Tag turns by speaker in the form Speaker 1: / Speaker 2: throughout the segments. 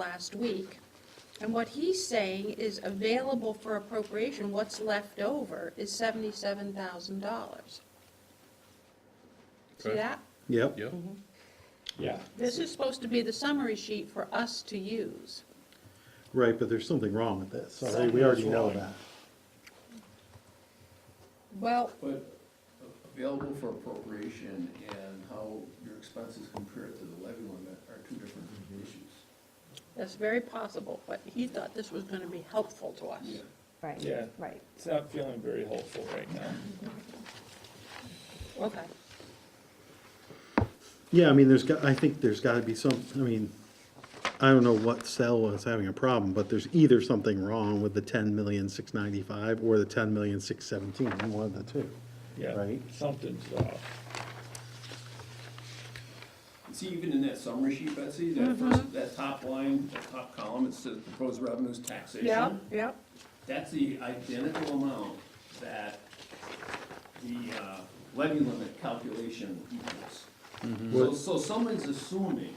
Speaker 1: last week. And what he's saying is available for appropriation, what's left over is seventy-seven thousand dollars. See
Speaker 2: Okay.
Speaker 1: that?
Speaker 3: Yep.
Speaker 2: Yeah,
Speaker 4: Yeah.
Speaker 1: This is supposed to be the summary sheet for us to use.
Speaker 3: Right, but there's something wrong with this, so they- we already know that.
Speaker 1: Well,
Speaker 5: But available for appropriation and how your expenses compare to the levy limit are two different issues.
Speaker 1: that's very possible, but he thought this was gonna be helpful to us.
Speaker 6: Right.
Speaker 4: Yeah.
Speaker 6: Right.
Speaker 4: It's not feeling very hopeful right now.
Speaker 1: Okay.
Speaker 3: Yeah, I mean, there's, got- I think there's gotta be some, I mean, I don't know what cell was having a problem, but there's either something wrong with the ten million six ninety-five or the ten million six seventeen, one of the two.
Speaker 4: Yeah.
Speaker 3: Right.
Speaker 4: Something's off.
Speaker 5: See, even in that summary sheet, Betsy, that first, that top line, that top column, it says proposed revenues
Speaker 1: Yeah,
Speaker 5: taxation.
Speaker 1: yeah.
Speaker 5: That's the identical amount that the uh, levy limit calculation equals. So, so someone's assuming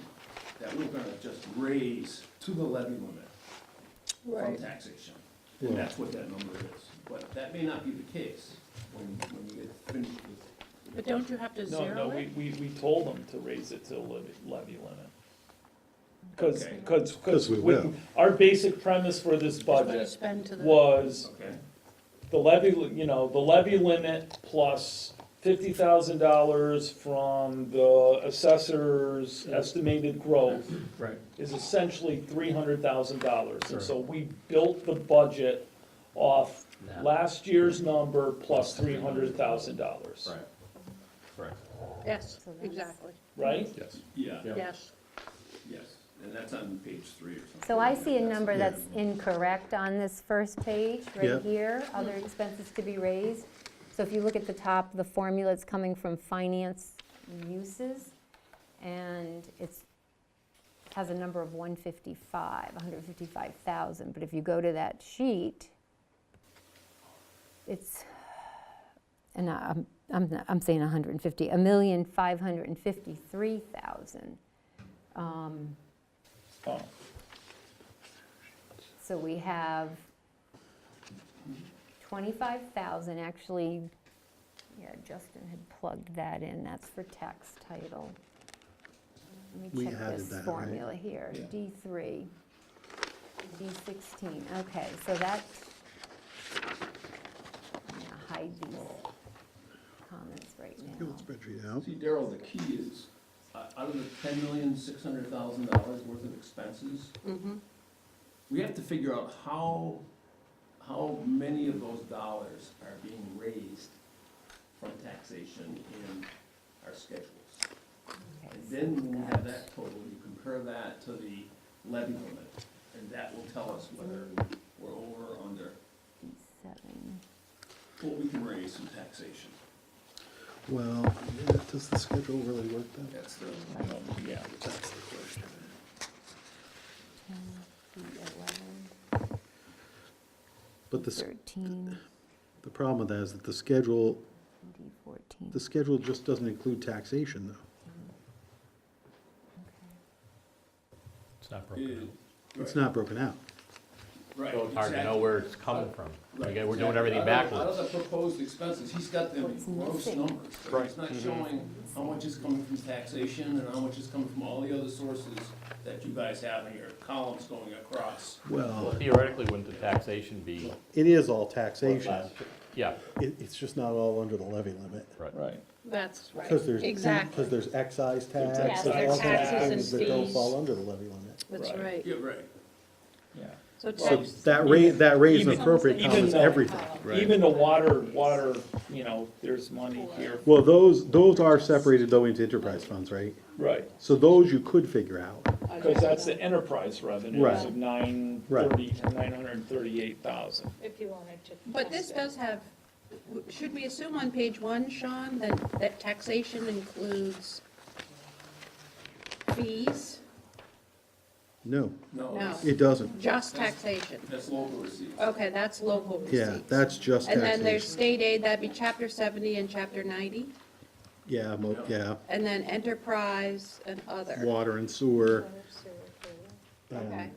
Speaker 5: that we're gonna just raise to the levy limit. from taxation. And that's what that number is. But that may not be the case when, when you get finished with.
Speaker 1: But don't you have to
Speaker 4: No, no,
Speaker 1: zero
Speaker 4: we,
Speaker 1: it?
Speaker 4: we, we told them to raise it to levy, levy limit. Cause,
Speaker 5: Okay.
Speaker 4: cause,
Speaker 3: 'Cause
Speaker 4: cause
Speaker 3: we
Speaker 4: we-
Speaker 3: will.
Speaker 4: our basic premise for this
Speaker 1: Just what you
Speaker 4: budget
Speaker 1: spend to the.
Speaker 4: was
Speaker 5: Okay.
Speaker 4: the levy, li- you know, the levy limit plus fifty thousand dollars from the assessor's estimated growth
Speaker 3: Right.
Speaker 4: is essentially three hundred thousand dollars. And
Speaker 3: Right.
Speaker 4: so we built the budget off last year's number plus three hundred thousand dollars,
Speaker 1: Yes,
Speaker 6: So that's-
Speaker 1: exactly,
Speaker 4: right?
Speaker 2: yes.
Speaker 5: Yeah,
Speaker 1: yes.
Speaker 5: yes. And that's on page three or something.
Speaker 6: So I see a number
Speaker 3: Yeah.
Speaker 6: that's incorrect on this first page,
Speaker 3: Yeah.
Speaker 6: right here, other expenses to be raised. So if you look at the top, the formula, it's coming from finance uses, and it's, has a number of 155, 155,000. But if you go to that sheet, it's, and I- I'm, I'm, not- I'm saying 150, a million five hundred and fifty-three thousand. Um,
Speaker 4: Oh,
Speaker 6: So we have 25,000, actually, yeah, Justin had plugged that in, that's for tax title. Let
Speaker 3: We
Speaker 6: me check
Speaker 3: added
Speaker 6: this
Speaker 3: that, right?
Speaker 6: formula here,
Speaker 4: Yeah.
Speaker 6: D3, D16, okay, so that's, I'm gonna hide these comments right
Speaker 3: Good
Speaker 6: now.
Speaker 3: spreadsheet out.
Speaker 5: See, Daryl, the key is, uh, out of the ten million, six hundred thousand dollars worth of expenses,
Speaker 1: Mm-hmm.
Speaker 5: we have to figure out how, how many of those dollars are being raised from taxation in our schedules.
Speaker 6: Okay,
Speaker 5: And
Speaker 6: so
Speaker 5: then when we have
Speaker 6: that's-
Speaker 5: that total, you compare that to the levy limit, and that will tell us whether we're over or under
Speaker 6: Seven.
Speaker 5: what we can raise in taxation.
Speaker 3: Well, yeah, does the schedule really work though?
Speaker 5: That's the,
Speaker 4: no, yeah.
Speaker 3: That's the question.
Speaker 6: 10, the 11,
Speaker 3: But the, s-
Speaker 6: 13,
Speaker 3: the problem with that is that the schedule,
Speaker 6: D 14.
Speaker 3: the schedule just doesn't include taxation though.
Speaker 7: It's not
Speaker 5: it-
Speaker 7: broken.
Speaker 3: It's not broken out.
Speaker 5: right,
Speaker 7: So it's hard to know
Speaker 5: exactly.
Speaker 7: where it's coming from.
Speaker 5: Right,
Speaker 7: Again, we're
Speaker 5: exactly.
Speaker 7: doing everything
Speaker 5: Out of the-
Speaker 7: backwards.
Speaker 5: Out of the proposed expenses, he's got them in
Speaker 6: What's
Speaker 5: gross
Speaker 6: missing?
Speaker 5: numbers, but he's
Speaker 7: Mm-hmm.
Speaker 5: not showing how much is coming from taxation and how much is coming from all the other sources that you guys have in your columns going across.
Speaker 7: Well,
Speaker 3: Well,
Speaker 7: theoretically, wouldn't the taxation be,
Speaker 3: it is all taxation.
Speaker 7: yeah,
Speaker 3: It, it's just not all under the levy limit.
Speaker 7: right.
Speaker 4: Right,
Speaker 1: That's right,
Speaker 3: Because there's,
Speaker 1: exactly,
Speaker 3: because there's excise
Speaker 4: There's
Speaker 3: tax, there's
Speaker 4: excise
Speaker 3: all kinds of
Speaker 4: taxes
Speaker 3: things
Speaker 1: and
Speaker 3: that don't
Speaker 1: fees.
Speaker 3: fall under the levy limit.
Speaker 1: that's
Speaker 4: Right.
Speaker 1: right.
Speaker 5: Yeah, right.
Speaker 4: yeah.
Speaker 1: So
Speaker 3: So
Speaker 1: tax,
Speaker 3: that raise, that raise and
Speaker 4: Even-
Speaker 3: appropriate
Speaker 4: even
Speaker 3: column is
Speaker 4: though-
Speaker 1: Um,
Speaker 3: everything.
Speaker 2: Right.
Speaker 4: Even the water, water, you know, there's money here.
Speaker 3: Well, those, those are separated though into enterprise funds, right?
Speaker 4: Right,
Speaker 3: So those you could figure out.
Speaker 4: cause that's the enterprise revenues
Speaker 3: Right.
Speaker 4: of nine
Speaker 3: Right.
Speaker 4: thirty, nine hundred and thirty-eight thousand.
Speaker 8: if you wanted to.
Speaker 1: but this does have, w- should we assume on page one, Sean, that, that taxation includes fees?
Speaker 3: No,
Speaker 1: No.
Speaker 5: No, that's-
Speaker 3: it doesn't.
Speaker 1: Just taxation?
Speaker 5: that's local receipts.
Speaker 1: Okay, that's local receipts.
Speaker 3: Yeah, that's just
Speaker 1: And then there's
Speaker 3: taxation.
Speaker 1: state aid, that'd be chapter seventy and chapter ninety,
Speaker 3: Yeah, mo- yeah,
Speaker 1: and then enterprise and other.
Speaker 3: water and sewer, And
Speaker 1: Okay.